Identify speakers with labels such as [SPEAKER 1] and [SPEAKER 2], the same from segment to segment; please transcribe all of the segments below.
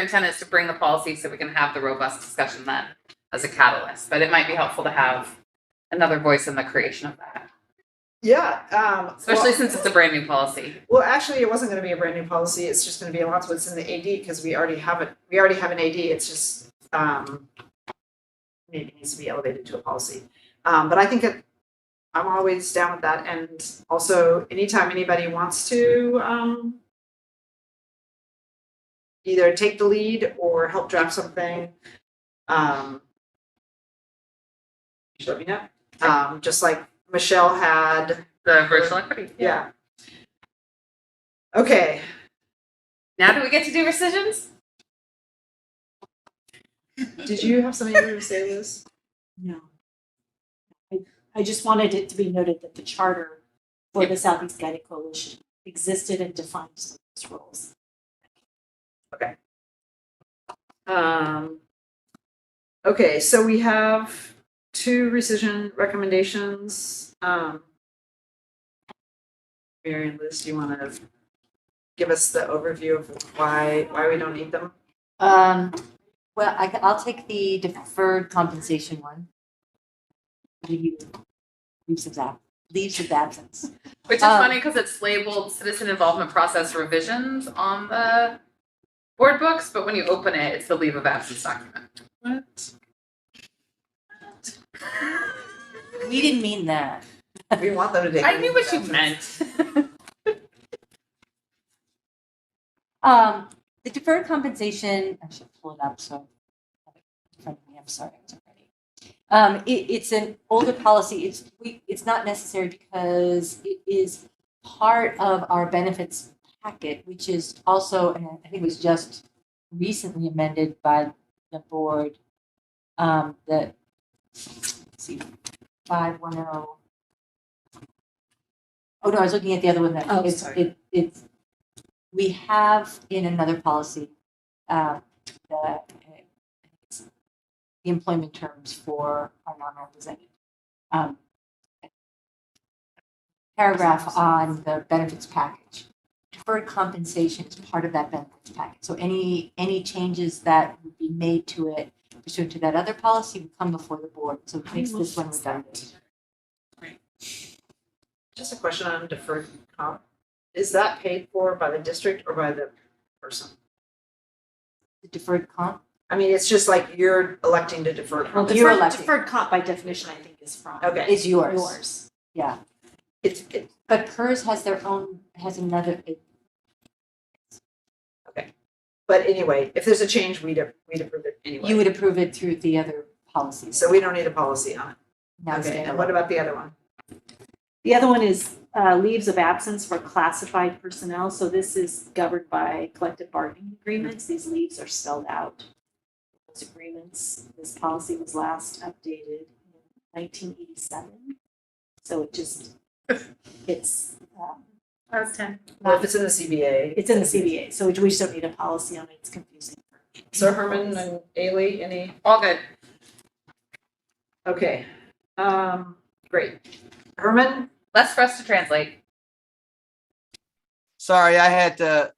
[SPEAKER 1] intent is to bring the policy so we can have the robust discussion then as a catalyst, but it might be helpful to have another voice in the creation of that,
[SPEAKER 2] Yeah, um.
[SPEAKER 1] especially
[SPEAKER 2] well-
[SPEAKER 1] since it's a brand new policy.
[SPEAKER 2] Well, actually, it wasn't gonna be a brand new policy, it's just gonna be a lot of what's in the AD, because we already have it, we already have an AD, it's just, um. Maybe needs to be elevated to a policy, um, but I think it, I'm always down with that, and also anytime anybody wants to, um. Either take the lead or help draft something, um. Just let me know, um, just like Michelle had
[SPEAKER 1] The racial equity.
[SPEAKER 2] yeah. Okay,
[SPEAKER 1] Now do we get to do rescissions?
[SPEAKER 2] did you have something you were gonna say, Liz?
[SPEAKER 3] No. I, I just wanted it to be noted that the charter for the Southeast Guided Coalition existed and defined some of those roles.
[SPEAKER 2] Um. Okay, so we have two rescission recommendations, um. Mary and Liz, do you wanna give us the overview of why, why we don't need them?
[SPEAKER 4] Um, well, I, will take the deferred compensation one. Leave- Leaves of ab, leaves of absence.
[SPEAKER 1] Which is
[SPEAKER 4] Um,
[SPEAKER 1] funny because it's labeled citizen involvement process revisions on the board books, but when you open it, it's the leave of absence document.
[SPEAKER 2] What?
[SPEAKER 4] We didn't mean that.
[SPEAKER 2] We want them to take.
[SPEAKER 1] I knew what you meant.
[SPEAKER 4] Um, the deferred compensation, I should pull it up, so. I have it in front of me. I'm sorry, it's already. Um, it, it's an older policy. It's, we, it's not necessary because it is part of our benefits packet, which is also, and I think it was just recently amended by the board. Um, the, let's see, five one oh. Oh, no, I was looking at the other one that.
[SPEAKER 3] Oh,
[SPEAKER 4] it's-
[SPEAKER 3] sorry.
[SPEAKER 4] it- It's, we have in another policy, uh, the, uh, it's the employment terms for our non-represented. Um, Paragraph on the benefits package. Deferred compensation is part of that benefits package. So any, any changes that would be made to it pursuant to that other policy would come before the board. So it makes this one redundant.
[SPEAKER 2] Just a question on deferred comp, is that paid for by the district or by the person?
[SPEAKER 4] The deferred comp,
[SPEAKER 2] I mean, it's just like you're electing to defer
[SPEAKER 3] Well,
[SPEAKER 2] comp.
[SPEAKER 4] You're
[SPEAKER 3] deferred,
[SPEAKER 4] elected.
[SPEAKER 3] deferred comp by definition, I think, is from
[SPEAKER 2] Okay,
[SPEAKER 4] is yours.
[SPEAKER 3] yours.
[SPEAKER 4] Yeah.
[SPEAKER 2] it's, it,
[SPEAKER 4] But PERS has their own, has another, it-
[SPEAKER 2] But anyway, if there's a change, we'd, we'd approve it
[SPEAKER 4] you
[SPEAKER 2] anyway.
[SPEAKER 4] would approve it through the other policies.
[SPEAKER 2] So we don't need a policy on it.
[SPEAKER 4] Now
[SPEAKER 2] Okay, and
[SPEAKER 4] standalone.
[SPEAKER 2] what about the other one?
[SPEAKER 3] The other one is uh, leaves of absence for classified personnel. So this is governed by collective bargaining agreements. These leaves are spelled out. Those agreements, this policy was last updated in 1987. So it just, it's, um,
[SPEAKER 1] That was ten.
[SPEAKER 2] Well, if it's in the CBA.
[SPEAKER 3] It's in the CBA, so we just don't need a policy on it, it's confusing.
[SPEAKER 2] So Herman and Ailey, any?
[SPEAKER 1] All good.
[SPEAKER 2] Okay, um, great. Herman?
[SPEAKER 1] Less for us to translate.
[SPEAKER 5] Sorry, I had to,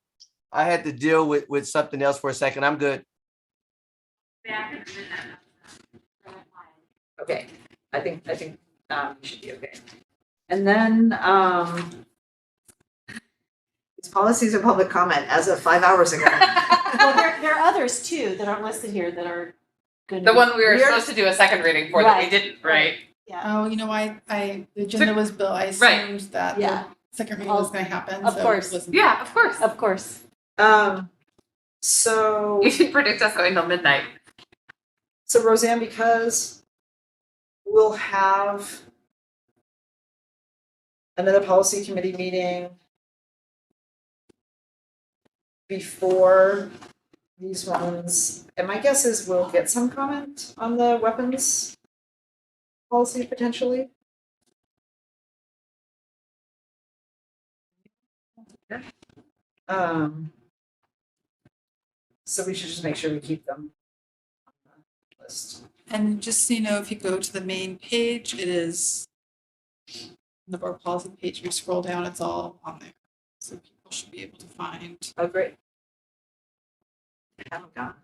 [SPEAKER 5] I had to deal with, with something else for a second. I'm good.
[SPEAKER 2] Okay, I think, I think, um, you should be okay. And then, um, these policies are public comment as of five hours ago.
[SPEAKER 3] Well, there, there are others too that aren't listed here that are gonna
[SPEAKER 1] The
[SPEAKER 3] be-
[SPEAKER 1] one we were
[SPEAKER 2] We're-
[SPEAKER 1] supposed to do a second reading for that we
[SPEAKER 3] Right.
[SPEAKER 1] didn't, right?
[SPEAKER 6] Oh, you know, I, I, the agenda was built, I
[SPEAKER 1] Right.
[SPEAKER 6] assumed that the
[SPEAKER 3] Yeah,
[SPEAKER 6] second reading was
[SPEAKER 4] Of-
[SPEAKER 6] gonna happen,
[SPEAKER 4] of
[SPEAKER 6] so it
[SPEAKER 4] course.
[SPEAKER 6] wasn't-
[SPEAKER 1] Yeah, of course.
[SPEAKER 4] Of course.
[SPEAKER 2] Um, so.
[SPEAKER 1] You should predict us going till midnight.
[SPEAKER 2] So Roseanne, because we'll have another policy committee meeting before these ones, and my guess is we'll get some comment on the weapons policy potentially.
[SPEAKER 1] Yeah.
[SPEAKER 2] Um, so we should just make sure we keep them on the list.
[SPEAKER 6] And just so you know, if you go to the main page, it is the board policy page, you scroll down, it's all on there. So people should be able to find
[SPEAKER 2] Oh, great. haven't gone.